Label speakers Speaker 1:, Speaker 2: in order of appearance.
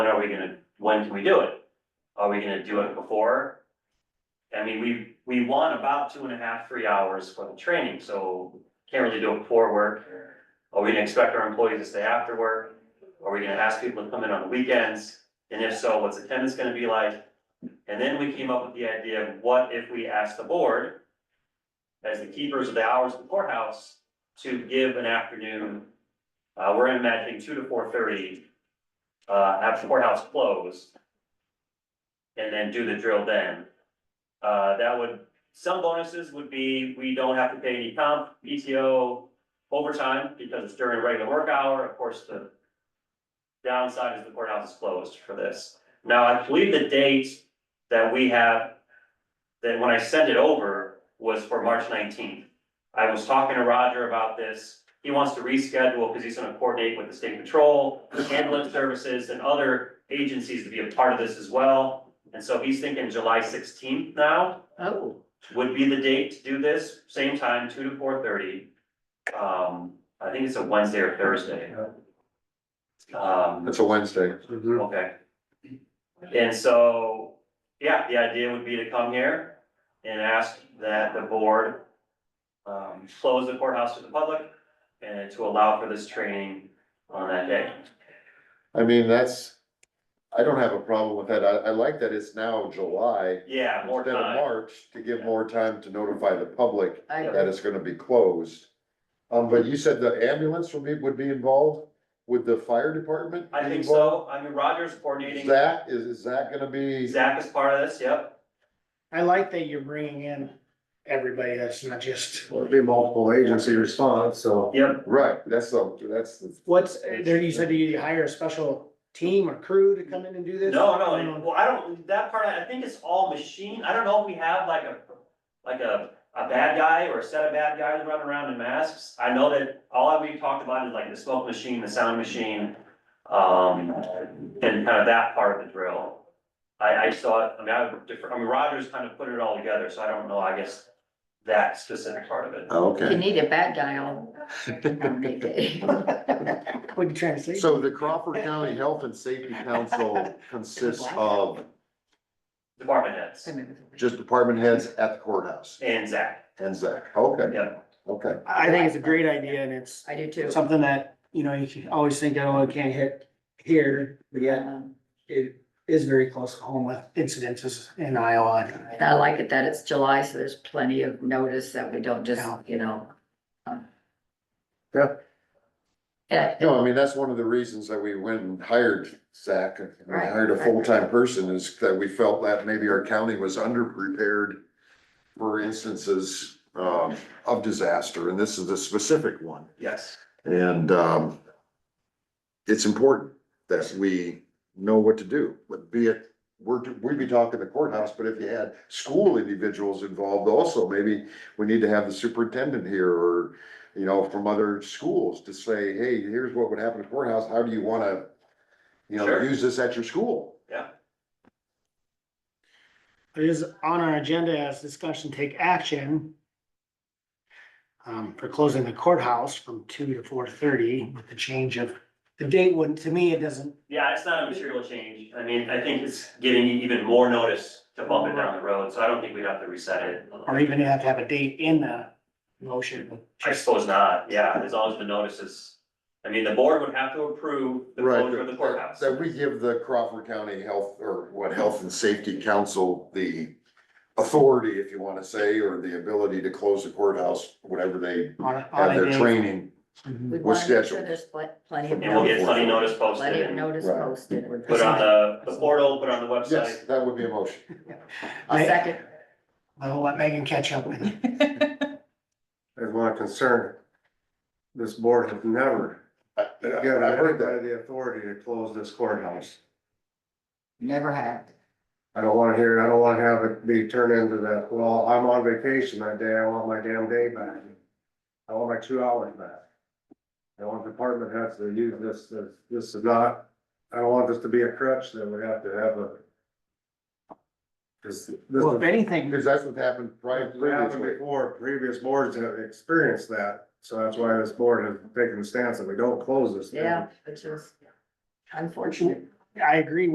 Speaker 1: when are we gonna, when can we do it? Are we gonna do it before? I mean, we, we want about two and a half, three hours for the training, so can't really do it before work. Are we gonna expect our employees to stay after work? Are we gonna ask people to come in on the weekends? And if so, what's attendance gonna be like? And then we came up with the idea of what if we asked the board as the keepers of the hours of the courthouse to give an afternoon. Uh, we're imagining two to four thirty, uh, have the courthouse closed. And then do the drill then. Uh, that would, some bonuses would be, we don't have to pay any comp, PTO, overtime, because it's during a regular work hour, of course, the. Downside is the courthouse is closed for this. Now, I believe the date that we have, that when I sent it over was for March nineteenth. I was talking to Roger about this. He wants to reschedule because he's gonna coordinate with the state patrol, ambulance services and other agencies to be a part of this as well. And so he's thinking July sixteenth now
Speaker 2: Oh,
Speaker 1: would be the date to do this, same time, two to four thirty. Um, I think it's a Wednesday or Thursday. Um,
Speaker 3: It's a Wednesday.
Speaker 1: okay. And so, yeah, the idea would be to come here and ask that the board um, close the courthouse to the public and to allow for this training on that day.
Speaker 3: I mean, that's, I don't have a problem with that. I, I like that it's now July.
Speaker 1: Yeah, more
Speaker 3: Instead of
Speaker 1: time.
Speaker 3: March, to give more time to notify the public
Speaker 2: I
Speaker 3: that it's gonna be closed. Um, but you said the ambulance would be, would be involved? Would the fire department?
Speaker 1: I
Speaker 3: be
Speaker 1: think
Speaker 3: involved?
Speaker 1: so. I mean, Roger's coordinating.
Speaker 3: Zach, is, is that gonna be,
Speaker 1: Zach is part of this, yep.
Speaker 4: I like that you're bringing in everybody that's not just,
Speaker 5: Well, it'd be multiple agency response, so.
Speaker 1: Yep.
Speaker 3: right, that's the, that's the,
Speaker 4: what's, uh, there, you said you hire a special team or crew to come in and do this? Um,
Speaker 1: No, no, and- well, I don't, that part, I think it's all machine. I don't know if we have like a, like a, a bad guy or a set of bad guys running around in masks. I know that all we talked about is like the smoke machine, the sound machine, um, and kind of that part of the drill. I, I saw it, I mean, I have different, I mean, Rogers kind of put it all together, so I don't know, I guess, that specific part of it.
Speaker 3: Oh.
Speaker 2: If you
Speaker 3: okay.
Speaker 2: need a bad guy, I'll. I'll make it.
Speaker 4: What are you trying to say?
Speaker 3: So the Crawford County Health and Safety Council consists of
Speaker 1: Department heads
Speaker 3: just department heads at the courthouse
Speaker 1: and Zach,
Speaker 3: and Zach, okay,
Speaker 1: yeah,
Speaker 3: okay.
Speaker 4: I think it's a great idea and it's
Speaker 2: I do too.
Speaker 4: something that, you know, you can always think, oh, it can't hit here, but yet
Speaker 2: Um,
Speaker 4: it is very close to home with incidences in Iowa.
Speaker 2: and I like it that it's July, so there's plenty of notice that we don't just,
Speaker 4: Yeah.
Speaker 2: you know. um,
Speaker 3: Yeah.
Speaker 2: Yeah,
Speaker 3: No, I mean, that's one of the reasons that we went and hired Zach, and we
Speaker 2: Right,
Speaker 3: hired a
Speaker 2: right.
Speaker 3: full-time person is that we felt that maybe our county was underprepared for instances, um, of disaster, and this is a specific one.
Speaker 1: yes.
Speaker 3: And, um, it's important that we know what to do, but be it, we're, we'd be talking the courthouse, but if you had school individuals involved also, maybe we need to have the superintendent here or, you know, from other schools to say, hey, here's what would happen at courthouse, how do you wanna, you know,
Speaker 1: Sure.
Speaker 3: use this at your school?
Speaker 4: It is on our agenda as discussion take action. Um, for closing the courthouse from two to four thirty with the change of, the date wouldn't, to me, it doesn't,
Speaker 1: Yeah, it's not a material change. I mean, I think it's getting even more notice to bump it down the road, so I don't think we'd have to reset it.
Speaker 4: or even you have to have a date in the motion.
Speaker 1: I suppose not, yeah, as long as the notices, I mean, the board would have to approve the
Speaker 3: Right,
Speaker 1: closure of the courthouse.
Speaker 3: That we give the Crawford County Health, or what, Health and Safety Council, the authority, if you wanna say, or the ability to close the courthouse, whatever they
Speaker 4: On a, on
Speaker 3: have
Speaker 4: a
Speaker 3: their
Speaker 4: date.
Speaker 3: training.
Speaker 4: Mhm.
Speaker 2: we
Speaker 3: We're
Speaker 2: want to make sure
Speaker 3: scheduled.
Speaker 2: there's pl- plenty of.
Speaker 1: And we'll get plenty notice posted
Speaker 2: Plenty of
Speaker 1: and
Speaker 2: notice
Speaker 3: Right.
Speaker 2: posted. would be-
Speaker 1: put on the, the portal, put on the
Speaker 3: Yes,
Speaker 1: website.
Speaker 3: that would be a motion.
Speaker 2: A second.
Speaker 4: I'll let Megan catch up with you.
Speaker 5: There's one concern. This board has never
Speaker 3: I, I
Speaker 5: given
Speaker 3: I heard that.
Speaker 5: anybody the authority to close this courthouse.
Speaker 2: Never have.
Speaker 5: I don't wanna hear, I don't wanna have it be turned into that, well, I'm on vacation that day, I want my damn day back. I want my two hours back. I want department heads to use this, as- this is not, I don't want this to be a crutch that we have to have a. Cause this
Speaker 4: Well,
Speaker 5: is
Speaker 4: if anything,
Speaker 3: Because that's what happened prior.
Speaker 5: It happened
Speaker 3: previously.
Speaker 5: before, previous boards have experienced that, so that's why this board has taken the stance that we don't close this. thing.
Speaker 2: Yeah, which is unfortunate.
Speaker 4: I agree